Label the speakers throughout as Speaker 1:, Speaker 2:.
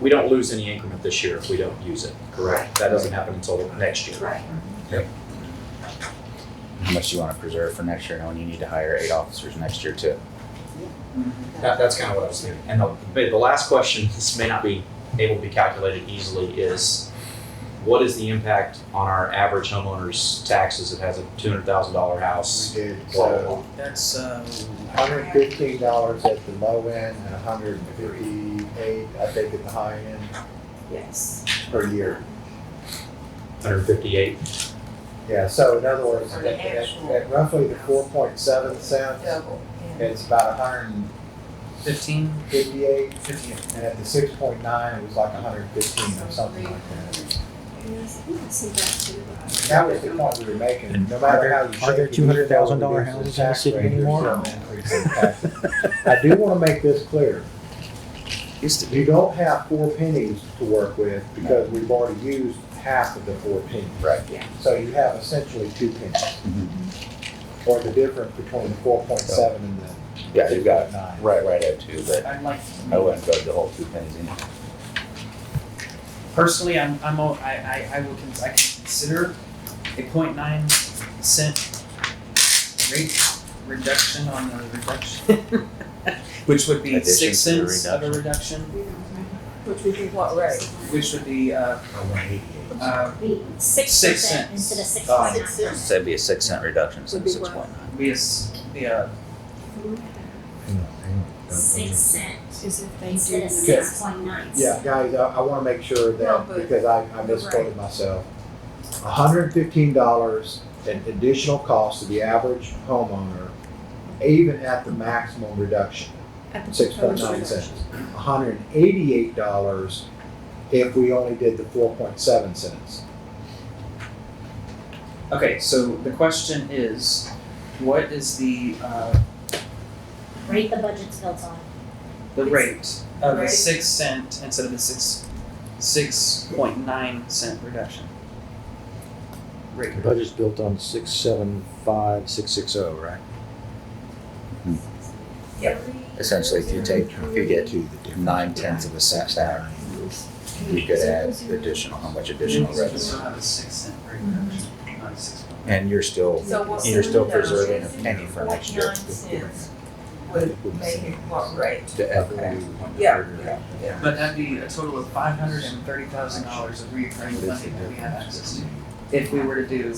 Speaker 1: we don't lose any increment this year if we don't use it, correct? That doesn't happen until next year.
Speaker 2: Right.
Speaker 3: How much do you want to preserve for next year, knowing you need to hire eight officers next year too?
Speaker 1: That, that's kind of what I was thinking. And the, but the last question, this may not be able to be calculated easily, is what is the impact on our average homeowner's taxes that has a two hundred thousand dollar house?
Speaker 4: We did,
Speaker 1: Blah, blah,
Speaker 4: so
Speaker 1: blah.
Speaker 5: That's, um,
Speaker 4: hundred fifteen dollars at the low end and hundred and fifty-eight, I think, at the high end
Speaker 2: Yes.
Speaker 4: per year.
Speaker 1: Hundred fifty-eight.
Speaker 4: Yeah, so in other words,
Speaker 2: For
Speaker 4: at,
Speaker 2: the
Speaker 4: at-
Speaker 2: actual-
Speaker 4: at roughly the four point seven cents,
Speaker 2: Double.
Speaker 4: it's about hundred and
Speaker 5: fifteen,
Speaker 4: fifty-eight,
Speaker 5: fifteen.
Speaker 4: and at the six point nine, it was like hundred and fifteen or something like that. That was the point we were making, no matter how you shake it.
Speaker 6: Are there $200,000 houses in the city anymore?
Speaker 4: I do wanna make this clear,
Speaker 5: Used to be.
Speaker 4: you don't have four pennies to work with because we've already used half of the four pennies.
Speaker 3: Right.
Speaker 2: Yeah.
Speaker 4: So you have essentially two
Speaker 3: Mhm.
Speaker 4: pennies. Or the difference between the four point seven and the.
Speaker 3: Mm-hmm. Yeah, you've got
Speaker 4: Nine.
Speaker 3: right, right at two, but
Speaker 5: I'd like,
Speaker 3: I wouldn't go to the whole two pennies anyway.
Speaker 5: personally, I'm, I'm, o- I, I, I will, con- I can consider a point nine cent rate reduction on the reduction. Which would be
Speaker 3: Addition
Speaker 5: six
Speaker 3: to the
Speaker 5: cents of a reduction,
Speaker 2: Which would be what rate?
Speaker 5: which would be, uh, uh,
Speaker 7: Six
Speaker 5: Six
Speaker 7: percent
Speaker 5: cents.
Speaker 7: instead of six
Speaker 5: Uh,
Speaker 7: point nine.
Speaker 2: Six cents.
Speaker 3: So Oh, that'd be a six cent reduction instead of
Speaker 2: Would be
Speaker 3: six
Speaker 2: what?
Speaker 3: point nine.
Speaker 5: be a, s- be a,
Speaker 7: Six cent
Speaker 8: Is if they
Speaker 7: instead
Speaker 8: do
Speaker 7: of
Speaker 8: the
Speaker 7: six point nine.
Speaker 4: Yeah, guys, I, I wanna make sure
Speaker 2: No,
Speaker 4: that,
Speaker 2: but-
Speaker 4: because I, I misquoted myself. hundred and fifteen dollars an additional cost to the average homeowner, even at the maximum reduction,
Speaker 8: at the
Speaker 4: six point nine
Speaker 8: proposed-
Speaker 4: cents. hundred and eighty-eight dollars if we only did the four point seven cents.
Speaker 5: okay, so the question is, what is the, uh,
Speaker 7: Rate the budget's built on.
Speaker 5: the rate of a
Speaker 2: Right.
Speaker 5: six cent instead of a six, six point nine cent reduction. Rate.
Speaker 6: The budget's built on six, seven, five, six, six, oh, right?
Speaker 3: Essentially, if you take, if you get to nine tenths of a cent down, you could add additional, how much additional
Speaker 5: You'll
Speaker 3: revenue?
Speaker 5: still have a six cent rate reduction, not a six point nine.
Speaker 3: And you're still,
Speaker 2: So what's
Speaker 3: you're still
Speaker 2: the
Speaker 3: preserving a
Speaker 2: reduction?
Speaker 3: penny for next year.
Speaker 2: Nine cents would make it what rate?
Speaker 3: The equity.
Speaker 2: Yeah.
Speaker 5: But that'd be a total of five hundred and thirty thousand dollars of recurring funding that we have access to. If we were to do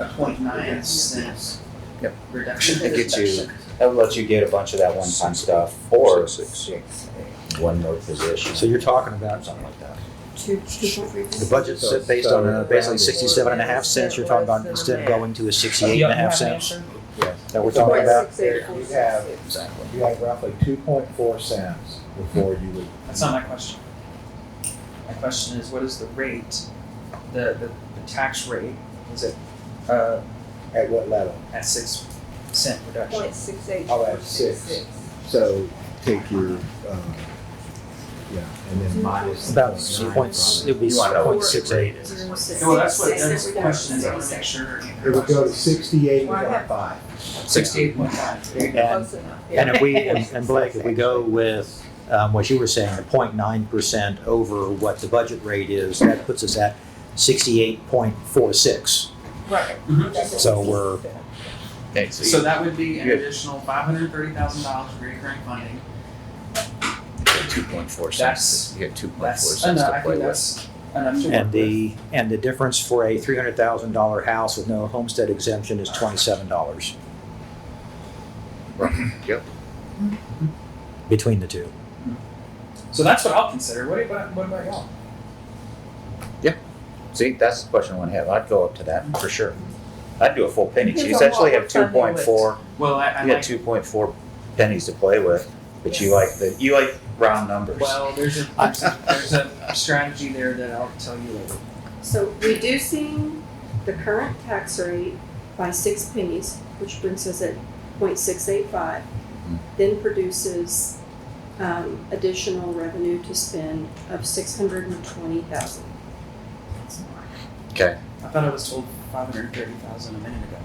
Speaker 5: a point nine cent
Speaker 3: Yep.
Speaker 5: reduction.
Speaker 3: That gets you- That would let you get a bunch of that one-time stuff or one more position.
Speaker 6: So you're talking about,
Speaker 3: Something like that.
Speaker 8: Two, two point three.
Speaker 6: the budget's set based on uh, basically sixty-seven and a half cents, you're talking about instead of going to a sixty-eight and a half cents that we're talking about?
Speaker 4: You have,
Speaker 3: Exactly.
Speaker 4: you have roughly two point four cents before you would.
Speaker 5: That's not my question. My question is, what is the rate, the, the, the tax rate, is it, uh,
Speaker 4: At what level?
Speaker 5: at six cent reduction?
Speaker 2: Point six eight.
Speaker 4: Oh, at six. So take your,
Speaker 3: uh,
Speaker 4: um, yeah, and then minus.
Speaker 6: About points, it'd be
Speaker 3: You wanna know what
Speaker 6: point six eight.
Speaker 2: Zero six.
Speaker 5: No, that's what, that's
Speaker 2: Six
Speaker 5: the question, is I
Speaker 2: reduction.
Speaker 5: wanna make sure.
Speaker 4: It would go to sixty-eight point five.
Speaker 5: Sixty-eight point five.
Speaker 6: And,
Speaker 2: Close enough. Yeah.
Speaker 6: and if we, and and Blake, if we go with, um, what you were saying, the point nine percent over what the budget rate is, that puts us at sixty-eight point four six.
Speaker 2: Right.
Speaker 6: So we're,
Speaker 3: Okay, so
Speaker 5: So that would be an
Speaker 3: Good.
Speaker 5: additional five hundred thirty thousand dollars recurring funding,
Speaker 3: two point four
Speaker 5: That's-
Speaker 3: cents, you get two point four
Speaker 5: that's
Speaker 3: cents
Speaker 5: enough,
Speaker 3: to
Speaker 5: I
Speaker 3: play
Speaker 5: think
Speaker 3: with.
Speaker 5: that's enough to work
Speaker 6: and
Speaker 5: with.
Speaker 6: the, and the difference for a three hundred thousand dollar house with no homestead exemption is twenty-seven dollars
Speaker 3: Yep.
Speaker 6: between the two.
Speaker 5: So that's what I'll consider, what about, what about y'all?
Speaker 3: See, that's the question I want to have. I'd go up to that for sure. I'd do a full penny. So you
Speaker 2: Depends on
Speaker 3: essentially
Speaker 2: what
Speaker 3: have two
Speaker 2: we're funding
Speaker 3: point
Speaker 2: with.
Speaker 3: four,
Speaker 5: Well, I, I
Speaker 3: you got
Speaker 5: like,
Speaker 3: two point four pennies to play with, but you like the, you like round numbers.
Speaker 5: well, there's a, there's a, there's a strategy there that I'll tell you later.
Speaker 8: So reducing the current tax rate by six pennies, which brings us at point six eight five, then produces um, additional revenue to spend of six hundred and twenty thousand.
Speaker 5: I thought I was told five hundred thirty thousand a minute ago.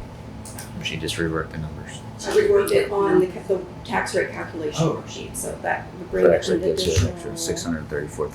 Speaker 3: She just reworked the numbers.
Speaker 8: So we worked it on the, ca- the tax rate calculation
Speaker 5: Oh.
Speaker 8: sheet, so that would bring
Speaker 3: That
Speaker 8: an
Speaker 3: actually gives you an
Speaker 8: additional.
Speaker 3: extra six hundred and thirty-four